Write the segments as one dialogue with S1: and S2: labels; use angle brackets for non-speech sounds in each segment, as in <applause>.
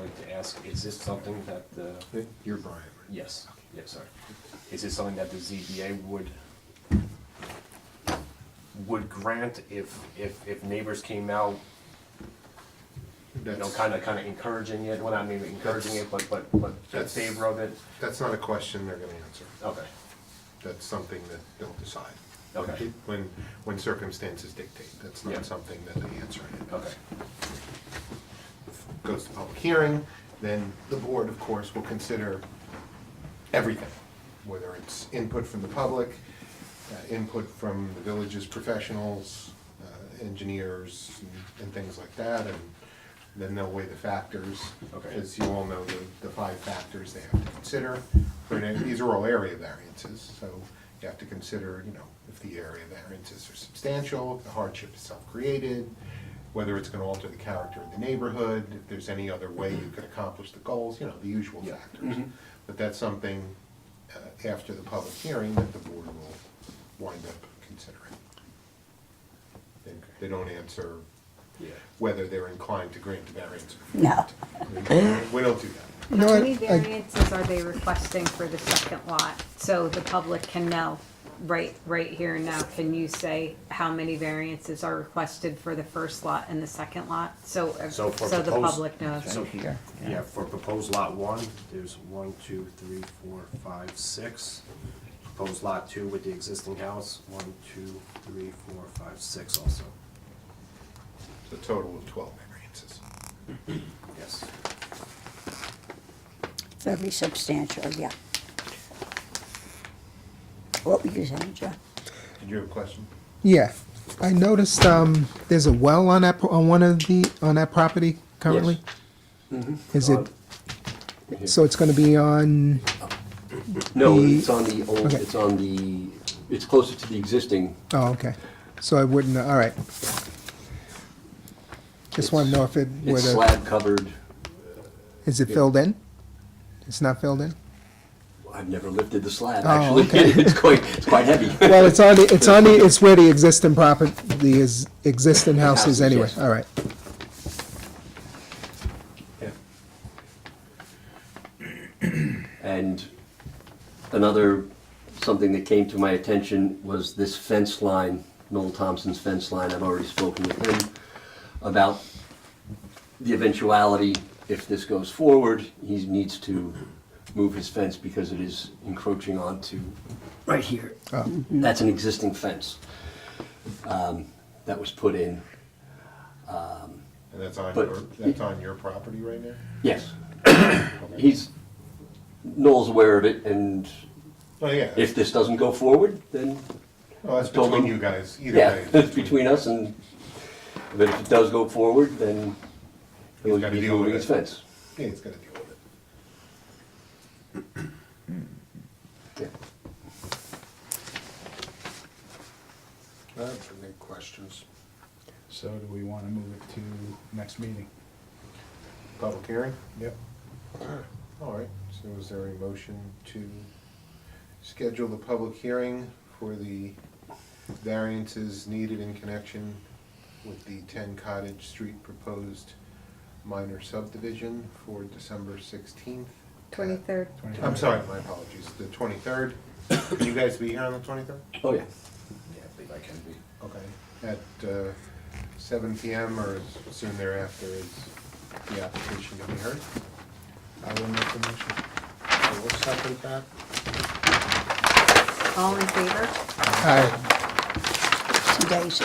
S1: like to ask, is this something that the,
S2: You're Brian, right?
S1: yes, yes, sorry. Is this something that the ZBA would, would grant if, if, if neighbors came out, you know,
S2: That's-
S1: kind of, kind of encouraging it, well, not maybe encouraging it, but, but, but in
S2: That's-
S1: favor of it?
S2: That's not a question they're gonna answer.
S1: Okay,
S2: That's something that they'll decide.
S1: Okay.
S2: When, when circumstances dictate, that's
S1: Yeah.
S2: not something that they answer in advance.
S1: okay,
S2: goes to public hearing, then the board, of course, will consider everything, whether it's input from the public, uh, input from the village's professionals, uh, engineers, and- and things like that, and then they'll weigh the factors.
S1: Okay.
S2: As you all know, the, the five factors they have to consider, They're in- these are all area variances, so you have to consider, you know, if the area variances are substantial, if the hardship is self-created, whether it's gonna alter the character of the neighborhood, if there's any other way you could accomplish the goals, you know, the usual
S1: Yeah.
S2: factors. But that's something, uh, after the public hearing that the board will wind up considering. They, they don't answer
S1: yeah,
S2: whether they're inclined to grant the variance. or
S3: No.
S2: not. We don't do that.
S4: You know
S5: How many
S4: what, I-
S5: variances are they requesting for the second lot? So the public can know, right, right here and now, can you say how many variances are requested for the first lot and the second lot? So, uh, so
S1: So for
S5: the
S1: proposed-
S5: public knows.
S1: so-
S3: Here,
S1: yeah, for proposed lot one, there's one, two, three, four, five, six. Proposed lot two with the existing house, one, two, three, four, five, six also,
S2: It's a total of twelve variances.
S1: yes.
S3: very substantial, yeah. What were you saying, Joe?
S2: Did you have a question?
S4: yeah, I noticed, um, there's a well on that, pro- on one of the, on that property currently? Is it, so it's gonna be on,
S6: No,
S4: The-
S6: it's on the old,
S4: okay.
S6: it's on the, it's closer to the existing.
S4: oh, okay, so I wouldn't, all right. Just wanna know if it,
S6: It's
S4: whether,
S6: slab covered.
S4: is it filled in? It's not filled in?
S6: I've never lifted the slab,
S4: Oh,
S6: actually.
S4: okay.
S6: <laughs> It's quite, it's quite heavy.
S4: <laughs> Well, it's on the, it's on the, it's where the existing property, the is- existing house
S6: House
S4: is
S6: is,
S4: anyway,
S6: yes.
S4: all right.
S2: Yeah.
S6: And another, something that came to my attention was this fence line, Noel Thompson's fence line. I've already spoken with him about the eventuality, if this goes forward, he needs to move his fence because it is encroaching onto, right here. That's an existing fence um, that was put in.
S2: And that's on
S6: But-
S2: your, that's on your property right now?
S6: <coughs> Yes, he's, Noel's aware of it, and
S2: Oh, yeah.
S6: if this doesn't go forward, then
S2: Well, that's
S6: told
S2: between
S6: them-
S2: you guys, either
S6: Yeah,
S2: way.
S6: it's between us and, but if it does go forward, then
S2: He's
S6: he'll
S2: gotta
S6: be
S2: deal with
S6: moving his
S2: it.
S6: fence.
S2: Yeah, he's gotta deal with it.
S6: Yeah.
S7: That's any questions. So do we want to move it to next meeting?
S2: Public hearing?
S7: Yep.
S2: All right, so is there a motion to schedule the public hearing for the variances needed in connection with the ten Cottage Street proposed minor subdivision for December sixteenth?
S5: Twenty-third,
S2: I'm sorry, my apologies, the twenty-third. Can you guys be here on the twenty-third?
S6: Oh, yeah.
S1: Yeah, I believe I can be.
S2: Okay. At uh, seven PM or as soon thereafter is the application to be heard?
S7: I will make the motion. I will second that.
S5: all in favor?
S4: All right,
S3: See Daisy?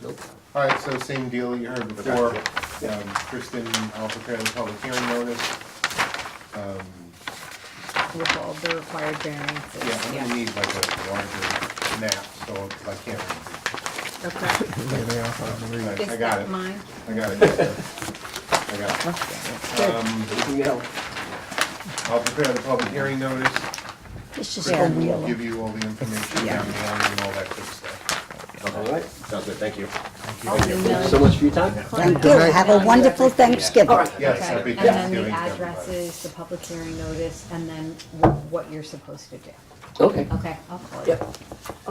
S2: Opposed? All right, so same deal you heard before. Um, Kristen, I'll prepare the public hearing notice. Um,
S5: With all the required
S2: Yeah,
S5: variances,
S2: I'm gonna
S5: yeah.
S2: need like a larger map, so I can't. <laughs>
S5: Okay.
S4: there they are. I'll read it.
S2: I- I
S5: Is
S2: got it.
S5: that mine?
S2: I got it. I got it. Mm-hmm.
S6: Anything else?
S2: I'll prepare the public hearing notice.
S3: This is a
S2: Kristen
S3: real
S2: will give you all the information down the line and all that good stuff.
S6: All right.
S1: Sounds good, thank you.
S5: I'll
S6: Thank
S5: email
S6: you
S5: you.
S6: so much for your time.
S3: Thank you. Have a wonderful Thanksgiving.
S5: All right,
S2: Yes,
S5: okay.
S2: happy
S5: And then
S2: Thanksgiving
S5: the
S2: to
S5: addresses, the public hearing notice, and then wh- what you're supposed to do.
S6: Okay.
S5: Okay, I'll call you.
S6: Yep.